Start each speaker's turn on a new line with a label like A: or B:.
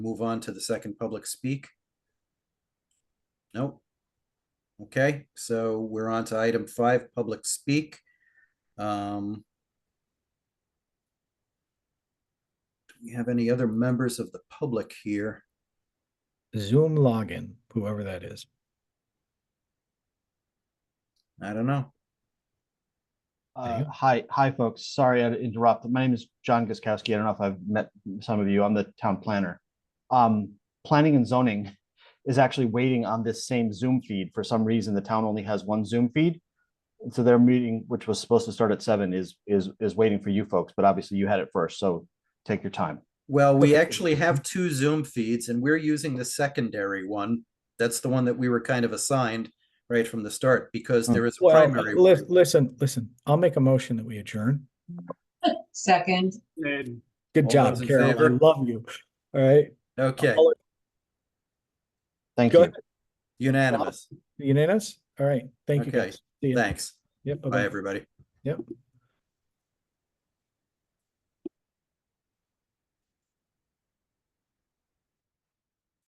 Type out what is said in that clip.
A: move on to the second public speak? Nope. Okay, so we're on to item five, public speak. Um. Do we have any other members of the public here?
B: Zoom login, whoever that is.
A: I don't know.
B: There you
C: Uh,
B: go.
C: hi, hi, folks. Sorry I had to interrupt. My name is John Guskowski. I don't know if I've met some of you. I'm the town planner. Um, planning and zoning is actually waiting on this same Zoom feed. For some reason, the town only has one Zoom feed. And So their meeting, which was supposed to start at seven, is is is waiting for you folks. But obviously, you had it first, so take your time.
A: Well, we actually have two Zoom feeds and we're using the secondary one. That's the one that we were kind of assigned right from the start because there is a
B: Well,
A: primary.
B: li-
A: one.
B: listen, listen, I'll make a motion that we adjourn.
D: Second,
E: Ned,
B: Good
A: All
B: job,
A: those in
B: Carol. I
A: favor?
B: love you. All right,
A: Okay,
C: Thank
B: Go
C: you.
B: ahead.
A: unanimous.
B: unanimous? All right, thank you
A: Okay,
B: guys. See ya.
A: Thanks.
B: Yep, bye-bye.
A: Bye, everybody.
B: Yep.